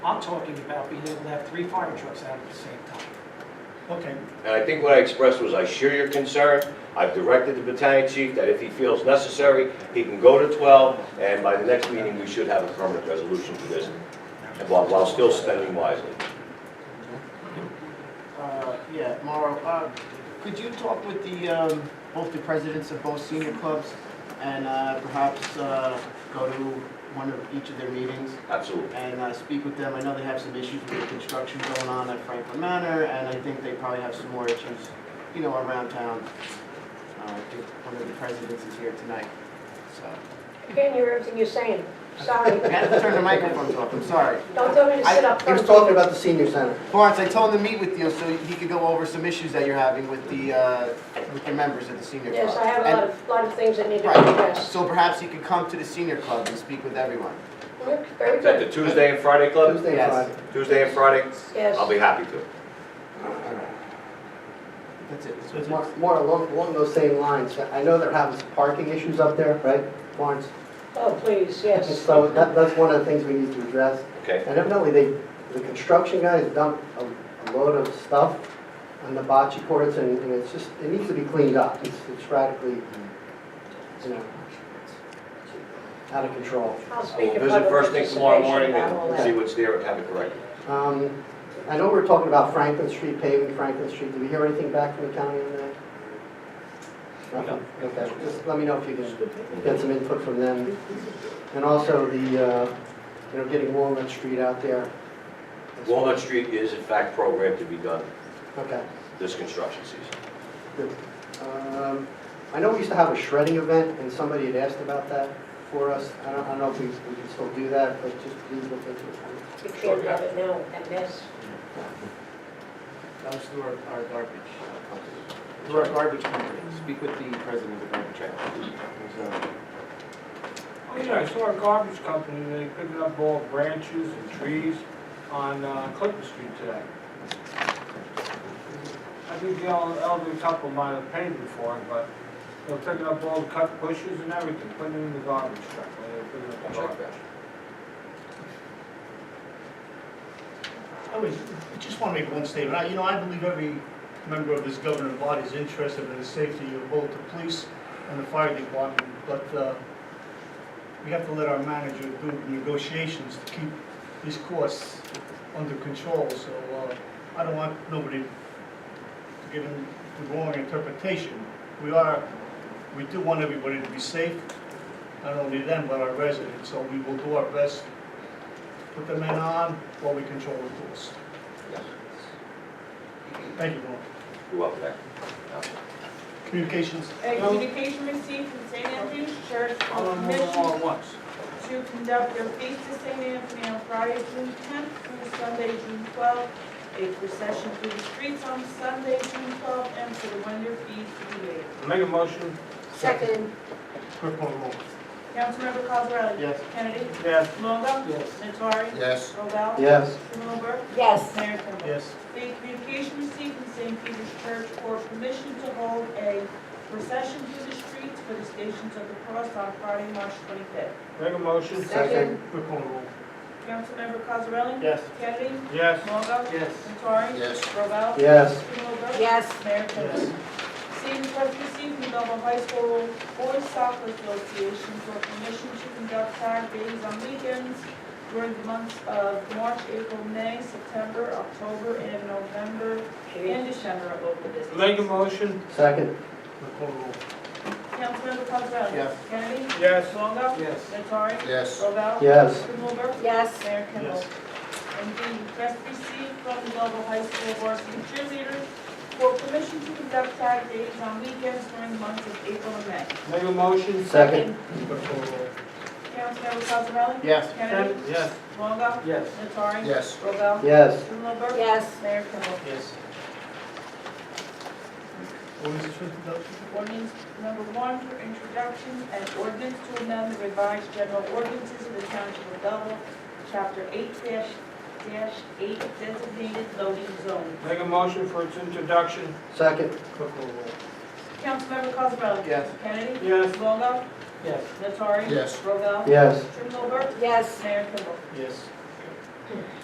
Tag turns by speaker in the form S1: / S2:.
S1: I'm talking about being able to have three fire trucks out at the same time.
S2: Okay,
S3: And I think what I expressed was, I share your concern. I've directed the battalion chief that if he feels necessary, he can go to 12, and by the next meeting, we should have a permanent resolution for this, while, while still spending wisely.
S4: Uh, Yeah, Mauro, uh, could you talk with the, um, both the presidents of both senior clubs and uh, perhaps uh, go to one of each of their meetings
S3: Absolutely.
S4: and uh, speak with them? I know they have some issues with the construction going on at Franklin Manor, and I think they probably have some more issues, you know, around town. Uh, I think One of the presidents is here tonight, so.
S5: I can't hear everything you're saying. Sorry.
S4: I have to turn the microphones off, I'm sorry.
S5: Don't tell me to sit up.
S6: He was talking about the senior center.
S4: Lawrence, I told him to meet with you so he could go over some issues that you're having with the, uh, with your members of the senior club.
S5: Yes, I have a
S4: And-
S5: lot of, lot of things that need to be
S4: Right,
S5: addressed.
S4: so perhaps he could come to the senior club and speak with everyone.
S5: Look, Very
S3: Is that
S5: good,
S3: the Tuesday and Friday club?
S6: Tuesday,
S4: Yes.
S6: Friday.
S3: Tuesday and Friday?
S5: yes.
S3: I'll be happy to.
S4: That's it.
S2: So it's-
S6: More more along, along those same lines, I know they're having some parking issues up there, right, Lawrence?
S5: Oh, please,
S6: And
S5: yes.
S6: so that, that's one of the things we need to address.
S3: Okay?
S6: And evidently, they, the construction guys dumped a, a load of stuff on the bocce courts, and, and it's just, it needs to be cleaned up. It's, it's radically, you know, out of control.
S5: I'll
S3: I will
S5: speak of
S3: visit
S5: public
S3: first thing tomorrow morning
S5: participation about all
S3: and see
S5: that.
S3: what's there and have it corrected.
S6: Um, I know we're talking about Franklin Street paving, Franklin Street, did we hear anything back from the county on that? Nothing? Okay, just let me know if you can get some input from them. And also the, uh, you know, getting Walnut Street out there.
S3: Walnut Street is in fact programmed to be done
S6: Okay.
S3: this construction season.
S6: Um, I know we used to have a shredding event, and somebody had asked about that for us. I don't, I don't know if we, we can still do that, but just please look into it.
S5: You can't have it now, and that's,
S4: That was through our, our garbage uh, company. Through our garbage company, speak with the president of garbage. So,
S7: Oh, Yeah, I saw a garbage company, they picked up all branches and trees on uh, Clinton Street today. I think the el- elderly couple might have paid before, but they're picking up all the cut bushes and everything, putting it in the garbage truck. when they're picking up the
S3: Check
S7: garbage.
S2: I was, I just want to make one statement. I- You know, I believe every member of this governing body is interested in the safety of both the police and the fire department, but uh, we have to let our manager do the negotiations to keep these costs under control, so uh, I don't want nobody to give him the wrong interpretation. We are, we do want everybody to be safe, not only them, but our residents, so we will do our best, put the men on while we control the doors.
S3: Yes.
S2: Thank you, Norm.
S3: You're welcome, Mayor.
S2: Communications?
S8: A communication received from St. Anthony's Church
S1: Uh,
S7: All of
S8: on a
S7: them
S5: Um,
S8: mission
S7: all at once.
S8: to conduct their feast of St. Anthony on Friday, June 10th through Sunday, June 12th. A procession through the streets on Sunday, June 12th, and for the wonder feast to be laid.
S7: Make a motion,
S5: second,
S2: Clerk call the roll.
S8: Councilmember Cosarelli?
S4: Yes.
S8: Kennedy?
S7: yes,
S8: Longo?
S1: Yes.
S8: Nattari?
S6: Yes.
S8: Robel?
S6: Yes.
S8: Strumelberg?
S5: yes.
S8: Mayor Kimball?
S2: Yes.
S8: The communication received from St. Peter's Church for permission to hold a procession through the streets for the Stations of the Cross on Friday, March 25th.
S7: make a motion,
S6: Second.
S2: Clerk call the roll.
S8: Councilmember Cosarelli?
S2: Yes.
S8: Kennedy?
S7: yes.
S8: Longo?
S1: Yes.
S8: Nattari?
S6: Yes.
S8: Robel?
S6: Yes.
S8: Strumelberg?
S5: Yes.
S8: Mayor Kimball? Seeing request received from Belleville High School Boys Soccer Association for permission to conduct Saturdays on weekends during the months of March, April, May, September, October, and November, and December at local businesses.
S7: Make a motion,
S6: Second.
S2: Clerk call the roll.
S8: Councilmember Cosarelli?
S4: Yes.
S8: Kennedy?
S7: yes.
S8: Longo?
S1: Yes.
S8: Nattari?
S3: Yes.
S8: Robel?
S6: Yes.
S8: Strumelberg?
S5: Yes.
S8: Mayor Kimball?
S2: Yes.
S8: And the request received from the Belleville High School varsity cheerleaders for permission to conduct Saturdays on weekends during the months of April and May.
S7: Make a motion,
S6: Second.
S2: Clerk call the roll.
S8: Councilmember Cosarelli?
S4: Yes.
S8: Kennedy?
S7: yes.
S8: Longo?
S1: Yes.
S8: Nattari?
S3: Yes.
S8: Robel?
S6: Yes.
S8: Strumelberg?
S5: Yes.
S8: Mayor Kimball?
S2: Yes. Ordinance for introduction?
S8: Ordinance number one for introduction and ordinance to amend the revised general ordinances of the Township of Belleville, Chapter eight dash dash eight designated loading zone.
S7: Make a motion for its introduction,
S6: Second.
S2: Clerk call the roll.
S8: Councilmember Cosarelli?
S4: Yes.
S8: Kennedy?
S7: yes.
S8: Longo?
S1: Yes.
S8: Nattari?
S3: Yes.
S8: Robel?
S6: Yes.
S8: Strumelberg?
S5: Yes.
S8: Mayor Kimball?
S2: Yes.